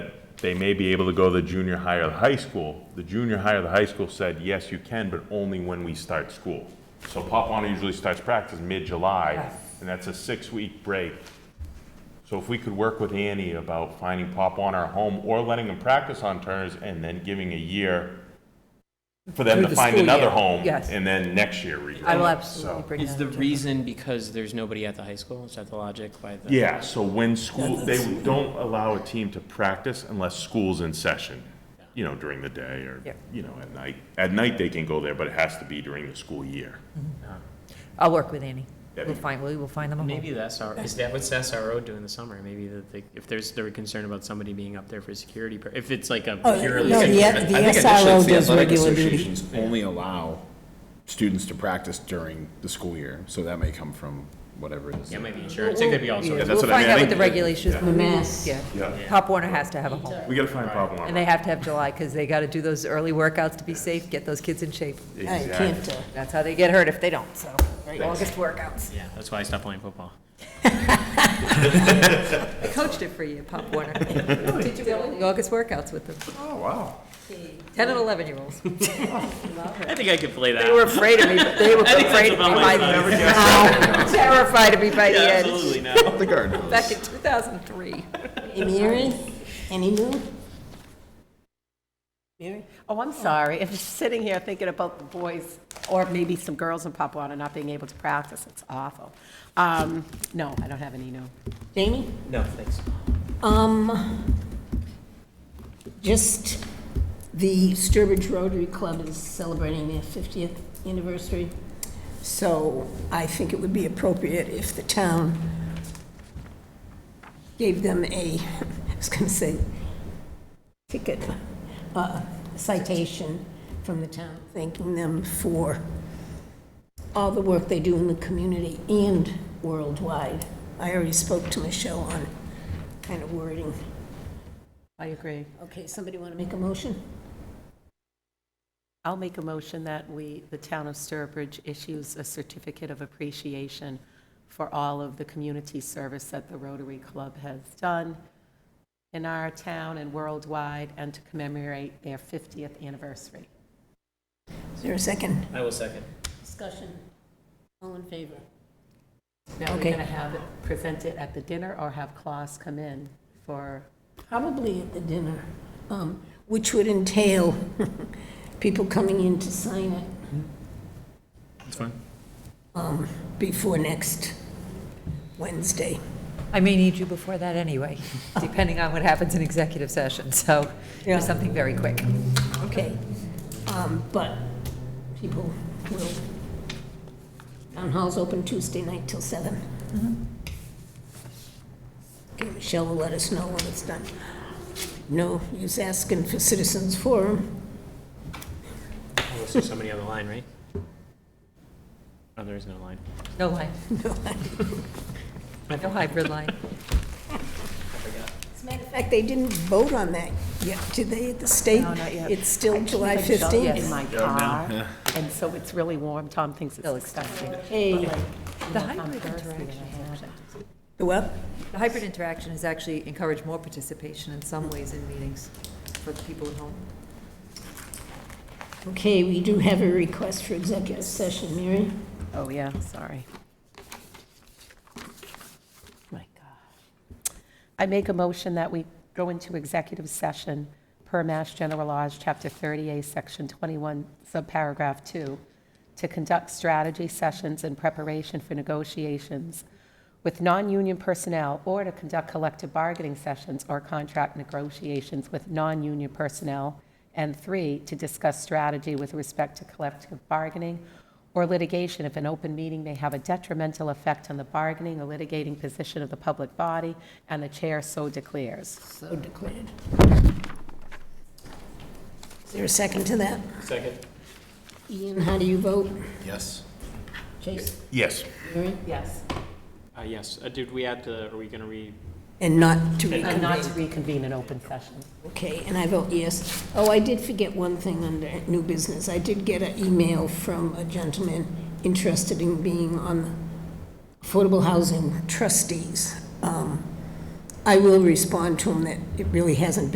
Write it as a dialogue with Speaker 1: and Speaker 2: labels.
Speaker 1: they may be able to go to the junior high or the high school. The junior high or the high school said, yes, you can, but only when we start school. So Papuana usually starts practice mid-July,
Speaker 2: Yes.
Speaker 1: and that's a six-week break. So if we could work with Annie about finding Papuana a home or letting them practice on Turner's and then giving a year for them
Speaker 2: Through
Speaker 1: to
Speaker 2: the
Speaker 1: find
Speaker 2: school
Speaker 1: another
Speaker 2: year,
Speaker 1: home.
Speaker 2: yes.
Speaker 1: And then next year redo.
Speaker 2: I will
Speaker 1: it,
Speaker 2: absolutely
Speaker 1: so.
Speaker 2: bring
Speaker 3: Is
Speaker 2: that
Speaker 3: the
Speaker 2: up to-
Speaker 3: reason because there's nobody at the high school? Is that the logic by the?
Speaker 1: Yeah, so when school, they don't allow a team to practice unless school's in session, you know, during the day or,
Speaker 2: Yep.
Speaker 1: you know, at night. At night, they can go there, but it has to be during the school year.
Speaker 2: I'll work with Annie.
Speaker 1: That'd
Speaker 2: We'll
Speaker 1: be-
Speaker 2: find, we will find them a
Speaker 3: Maybe
Speaker 2: home.
Speaker 3: the SRO, is that what's the SRO do in the summer? Maybe that they, if there's, they're concerned about somebody being up there for security, pur- if it's like a
Speaker 4: Oh,
Speaker 3: purely.
Speaker 4: no, the-
Speaker 3: security-
Speaker 4: the
Speaker 5: I think initially
Speaker 4: SRO
Speaker 5: it's the
Speaker 4: does
Speaker 5: athletic
Speaker 4: regular duty.
Speaker 5: associations only allow students to practice during the school year, so that may come from whatever it is.
Speaker 3: Yeah, maybe insurance, it could be all sorts
Speaker 1: that's
Speaker 3: of.
Speaker 2: We'll
Speaker 1: what I
Speaker 2: find
Speaker 1: mean. I
Speaker 2: out what
Speaker 1: think-
Speaker 2: the regulations.
Speaker 1: Yeah.
Speaker 2: will be.
Speaker 4: Mass.
Speaker 2: Yeah.
Speaker 1: Yeah.
Speaker 2: Pop Warner has to have a home.
Speaker 1: We gotta find Pop
Speaker 2: And they have to have July because they got to do those early workouts to be safe, get those kids in shape.
Speaker 4: I can't, uh,
Speaker 2: That's how they get hurt if they don't, so, right, August workouts.
Speaker 3: Yeah, that's why I stopped playing football.
Speaker 2: I coached it for you, Pop Warner. Did you go to the August workouts with them?
Speaker 1: Oh, wow.
Speaker 2: 10 and 11-year-olds.
Speaker 3: I think I could play that.
Speaker 2: They were afraid of me, but they were
Speaker 3: I think that's
Speaker 2: afraid of me
Speaker 3: about
Speaker 2: by
Speaker 3: my
Speaker 2: the
Speaker 3: size.
Speaker 2: end. Terrified of me by the end,
Speaker 3: Absolutely not.
Speaker 5: The guard knows.
Speaker 2: back in 2003.
Speaker 4: Hey, Mary, any new? Mary?
Speaker 6: Oh, I'm sorry. If you're sitting here thinking about the boys, or maybe some girls in Papuana not being able to practice, it's awful. Um, No, I don't have any, no.
Speaker 4: Jamie?
Speaker 3: No, thanks.
Speaker 4: Um, just the Sturbridge Rotary Club is celebrating their 50th anniversary. So I think it would be appropriate if the town gave them a, I was gonna say, ticket, uh, citation from the town, thanking them for all the work they do in the community and worldwide. I already spoke to Michelle on kind of wording.
Speaker 6: I agree.
Speaker 4: Okay, somebody want to make a motion?
Speaker 6: I'll make a motion that we, the town of Sturbridge issues a certificate of appreciation for all of the community service that the Rotary Club has done in our town and worldwide, and to commemorate their 50th anniversary.
Speaker 4: Is there a second?
Speaker 3: I will second.
Speaker 4: Discussion. All in favor?
Speaker 6: Now, we're
Speaker 4: Okay.
Speaker 6: going to have it presented at the dinner or have Claus come in for
Speaker 4: Probably at the dinner, um, which would entail people coming in to sign it
Speaker 3: That's fine.
Speaker 4: before next Wednesday.
Speaker 2: I may need you before that anyway, depending on what happens in executive session, so
Speaker 4: Yeah.
Speaker 2: there's something very quick.
Speaker 4: Okay, um, but people will, town hall's open Tuesday night till seven.
Speaker 6: Mm-hmm.
Speaker 4: Okay, Michelle will let us know when it's done. No use asking for citizens forum.
Speaker 3: Unless there's somebody on the line, right? Oh, there is no line.
Speaker 2: No line. No hybrid line.
Speaker 4: As a matter of fact, they didn't vote on that yet, did they, at the state?
Speaker 6: No, not yet.
Speaker 4: It's still July
Speaker 6: I shut in
Speaker 4: 15th.
Speaker 6: my car, and so it's really warm. Tom thinks
Speaker 2: Still
Speaker 6: it's disgusting.
Speaker 4: Hey,
Speaker 2: The hybrid interaction,
Speaker 4: the what?
Speaker 2: the hybrid interaction is actually encourage more participation in some ways in meetings for the people at home.
Speaker 4: Okay, we do have a request for executive session, Mary.
Speaker 6: Oh, yeah, sorry. My God. I make a motion that we go into executive session per Mass General Laws, Chapter 30A, Section 21, Subparagraph 2, to conduct strategy sessions in preparation for negotiations with non-union personnel or to conduct collective bargaining sessions or contract negotiations with non-union personnel. And three, to discuss strategy with respect to collective bargaining or litigation if an open meeting may have a detrimental effect on the bargaining or litigating position of the public body, and the chair so declares.
Speaker 4: So declared. Is there a second to that?
Speaker 3: Second.
Speaker 4: Ian, how do you vote?
Speaker 5: Yes.
Speaker 4: Chase?
Speaker 1: Yes.
Speaker 4: Mary?
Speaker 6: Yes.
Speaker 3: Uh, yes, uh, did we add the, are we gonna read?
Speaker 4: And not to
Speaker 6: And not to
Speaker 4: reconvene.
Speaker 6: reconvene an open session.
Speaker 4: Okay, and I vote yes. Oh, I did forget one thing under new business. I did get an email from a gentleman interested in being on the Affordable Housing Trustees. Um, I will respond to him that it really hasn't